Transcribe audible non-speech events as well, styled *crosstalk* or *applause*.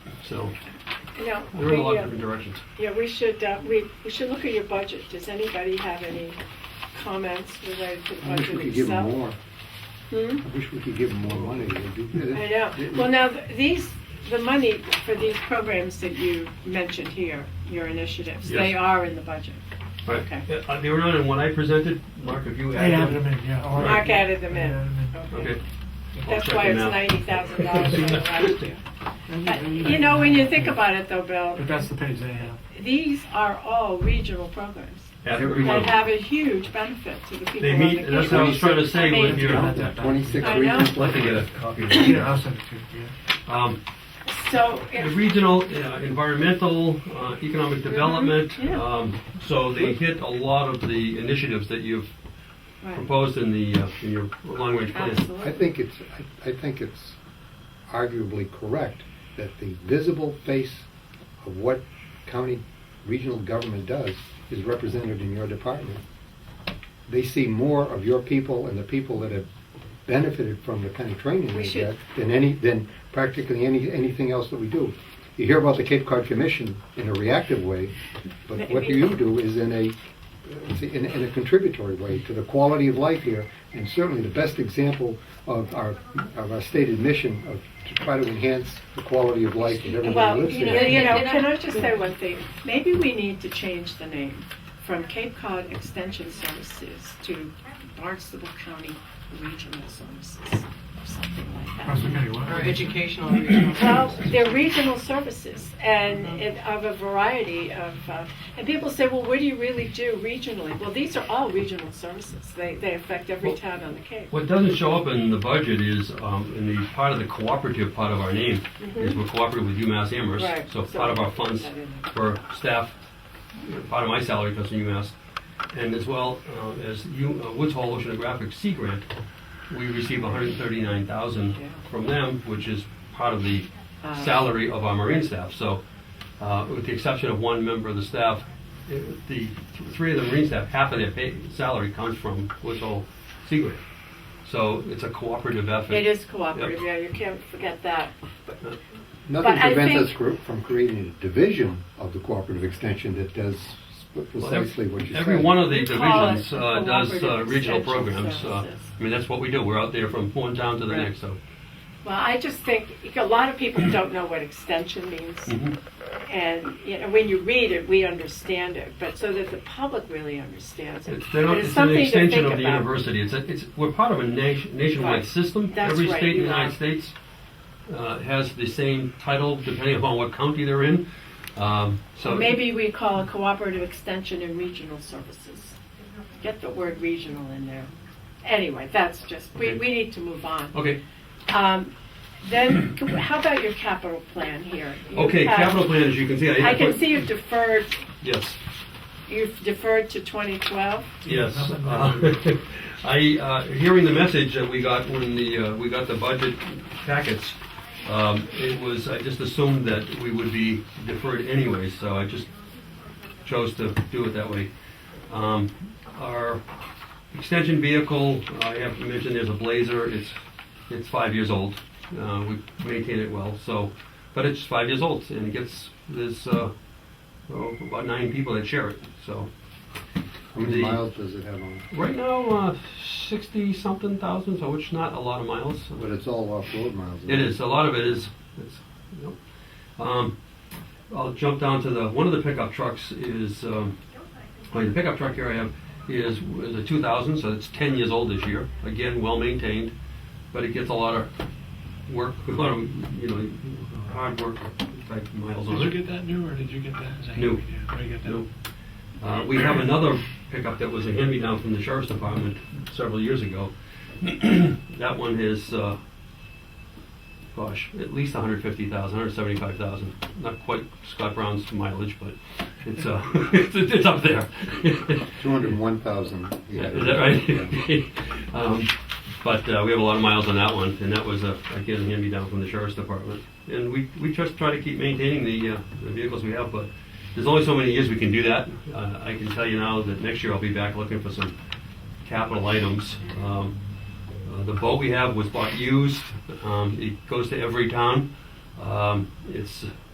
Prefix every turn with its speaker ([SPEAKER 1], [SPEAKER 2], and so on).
[SPEAKER 1] So
[SPEAKER 2] No,
[SPEAKER 1] there are a lot
[SPEAKER 2] we,
[SPEAKER 1] of
[SPEAKER 2] uh,
[SPEAKER 1] different directions.
[SPEAKER 2] yeah, we should, uh, we, we should look at your budget. Does anybody have any comments related to the
[SPEAKER 3] I wish we
[SPEAKER 2] budget
[SPEAKER 3] could give them
[SPEAKER 2] itself?
[SPEAKER 3] more.
[SPEAKER 2] Hmm?
[SPEAKER 3] I wish we could give them more money. They'd do better.
[SPEAKER 2] I know. Well, now, th- these, the money for these programs that you mentioned here, your initiatives, they
[SPEAKER 1] Yes.
[SPEAKER 2] are in the budget.
[SPEAKER 1] Right.
[SPEAKER 2] Okay.
[SPEAKER 1] Yeah, uh, They were not in one I presented, Mark, if you add them.
[SPEAKER 4] in, yeah.
[SPEAKER 1] Right.
[SPEAKER 2] Mark added them
[SPEAKER 4] Yeah,
[SPEAKER 2] in.
[SPEAKER 4] I mean,
[SPEAKER 2] Okay.
[SPEAKER 1] Okay. I'll
[SPEAKER 2] That's
[SPEAKER 1] check
[SPEAKER 2] why
[SPEAKER 1] them
[SPEAKER 2] it's
[SPEAKER 1] out.
[SPEAKER 2] ninety
[SPEAKER 1] *laughs*
[SPEAKER 2] thousand dollars over last year. Uh, You know, when you think about it though, Bill,
[SPEAKER 4] But that's the page they have.
[SPEAKER 2] these are all regional programs
[SPEAKER 1] Every
[SPEAKER 3] Every
[SPEAKER 2] that
[SPEAKER 1] one.
[SPEAKER 2] have a huge benefit to the people
[SPEAKER 1] They
[SPEAKER 2] on the
[SPEAKER 1] meet, that's what I
[SPEAKER 2] community.
[SPEAKER 1] was trying to say with your,
[SPEAKER 4] Yeah,
[SPEAKER 1] I'd
[SPEAKER 4] that- that-
[SPEAKER 3] Twenty-six
[SPEAKER 2] I know.
[SPEAKER 3] regional
[SPEAKER 1] like to get a copy. of it.
[SPEAKER 4] Yeah, I'll send it to you,
[SPEAKER 1] Um,
[SPEAKER 2] So,
[SPEAKER 1] the
[SPEAKER 2] if-
[SPEAKER 1] Regional, uh, environmental, uh, economic development,
[SPEAKER 2] Mm-hmm. yeah.
[SPEAKER 1] um, so they hit a lot of the initiatives that you've
[SPEAKER 2] right,
[SPEAKER 1] proposed in the, uh, in your long-range plan.
[SPEAKER 3] I
[SPEAKER 2] absolutely.
[SPEAKER 3] think it's, I- I think it's arguably correct that the visible face of what county regional government does is represented in your department. They see more of your people and the people that have benefited from the kind of training
[SPEAKER 2] We
[SPEAKER 3] they
[SPEAKER 2] should-
[SPEAKER 3] get than any, than practically any, anything else that we do. You hear about the Cape Cod Commission in a reactive way, but what do you do is in a it's in, in a contributory way to the quality of life here, and certainly the best example of our of our stated mission of to try to enhance the quality of life that everybody
[SPEAKER 2] Well,
[SPEAKER 3] lives
[SPEAKER 2] you know,
[SPEAKER 3] here.
[SPEAKER 2] you know, can I just say one thing? Maybe we need to change the name from Cape Cod Extension Services to Barnstable County Regional Services, or something like
[SPEAKER 4] yeah.
[SPEAKER 2] that.
[SPEAKER 4] Cross the committee, what?
[SPEAKER 5] Or educational regional
[SPEAKER 2] Well,
[SPEAKER 5] services.
[SPEAKER 2] they're regional services and it- of a variety of, uh, and people say, well, what do you really do regionally? Well, these are all regional services. They, they affect every
[SPEAKER 1] Well-
[SPEAKER 2] town on the Cape.
[SPEAKER 1] What doesn't show up in the budget is, um, in the part of the cooperative part of our name, is we're cooperative with UMass Amherst.
[SPEAKER 2] Mm-hmm. Right.
[SPEAKER 1] So part of our funds
[SPEAKER 2] Put that in there.
[SPEAKER 1] for staff, you know, part of my salary comes from UMass, and as well uh, as U- uh, Woods Hole Oceanographic Sea Grant, we receive 139,000
[SPEAKER 2] Yeah.
[SPEAKER 1] from them, which is part of the
[SPEAKER 2] Uh,
[SPEAKER 1] salary of our marine staff. So, uh, with the exception of one member of the staff, it- the th- three of the marine staff, half of their pay, salary comes from Woods Hole Sea Grant. So it's a cooperative effort.
[SPEAKER 2] It is cooperative, yeah, you can't forget that.
[SPEAKER 3] Nothing
[SPEAKER 2] But I
[SPEAKER 3] prevents us
[SPEAKER 2] think-
[SPEAKER 3] gr- from creating a division of the cooperative extension that does
[SPEAKER 1] Well, ev-
[SPEAKER 3] precisely what you said.
[SPEAKER 1] Every one of the
[SPEAKER 2] We call it
[SPEAKER 1] divisions uh, does uh,
[SPEAKER 2] cooperative
[SPEAKER 1] regional
[SPEAKER 2] extension
[SPEAKER 1] programs. uh,
[SPEAKER 2] services.
[SPEAKER 1] I mean, that's what we do. We're out there from one town to the
[SPEAKER 2] Right.
[SPEAKER 1] next, so.
[SPEAKER 2] Well, I just think a lot of people don't know what extension means.
[SPEAKER 1] Mhm.
[SPEAKER 2] And, you know, when you read it, we understand it, but so that the public really understands it.
[SPEAKER 1] It's they're not-
[SPEAKER 2] But
[SPEAKER 1] it's an
[SPEAKER 2] something to
[SPEAKER 1] extension
[SPEAKER 2] think
[SPEAKER 1] of the
[SPEAKER 2] about.
[SPEAKER 1] university. It's, a- it's, we're part of a nation-
[SPEAKER 2] Right.
[SPEAKER 1] nationwide system.
[SPEAKER 2] That's
[SPEAKER 1] Every
[SPEAKER 2] right,
[SPEAKER 1] state in
[SPEAKER 2] you
[SPEAKER 1] the United
[SPEAKER 2] are.
[SPEAKER 1] States uh, has the same title depending upon what county they're in. Um, So
[SPEAKER 2] Maybe we call it cooperative extension and regional services. Get the word regional in there. Anyway, that's just, we,
[SPEAKER 1] Okay.
[SPEAKER 2] we need to move on.
[SPEAKER 1] Okay,
[SPEAKER 2] Um, Then, *coughs* can we- how about your capital plan here? You
[SPEAKER 1] okay,
[SPEAKER 2] have-
[SPEAKER 1] capital plan, as you can see.
[SPEAKER 2] I
[SPEAKER 1] have
[SPEAKER 2] can
[SPEAKER 1] put-
[SPEAKER 2] see you've deferred,
[SPEAKER 1] Yes.
[SPEAKER 2] you've deferred to 2012.
[SPEAKER 1] Yes.
[SPEAKER 4] Nothing.
[SPEAKER 1] Uh, I, uh, hearing the message that we got when the, uh, we got the budget packets, um, it was, I just assumed that we would be deferred anyway, so I just chose to do it that way. Um, Our extension vehicle, I have mentioned there's a Blazer, it's, it's five years old. Uh, We maintain it well, so, but it's five years old and it gets, there's uh, oh, about nine people that share it, so.
[SPEAKER 3] How many
[SPEAKER 1] the-
[SPEAKER 3] miles does it have on it?
[SPEAKER 1] Right now, uh, sixty something thousand, so it's not a lot of miles.
[SPEAKER 3] But it's all off-road miles.
[SPEAKER 1] It is a lot of it is. It's, you know. um, I'll jump down to the one of the pickup trucks is. Um, well, the pickup truck here I have is is a 2000, so it's 10 years old this year. Again, well maintained, but it gets a lot of work, *laughs* a lot of you know hard work type miles on
[SPEAKER 6] Did
[SPEAKER 1] it.
[SPEAKER 6] you get that new, or did you get that? as a
[SPEAKER 1] New.
[SPEAKER 6] hand-me-down? Oh, you get that?
[SPEAKER 1] No. Uh, we have another pickup that was a hand-me-down from the sheriff's department several years ago. *clears throat* That one is, uh, gosh, at least 150,000, 175,000. Not quite Scott Brown's mileage, but it's, uh, *laughs* it's, it's up there. *laughs*
[SPEAKER 3] Two hundred and one thousand.
[SPEAKER 1] Yeah, Is that right? *laughs* Um, But uh, we have a lot of miles on that one, and that was, uh, a- again, a hand-me-down from the sheriff's department. And we, we just try to keep maintaining the, uh, the vehicles we have, but there's only so many years we can do that. Uh, I can tell you now that next year I'll be back looking for some capital items. Um, uh, The boat we have was bought used, Um, it goes to every town. Um, It's,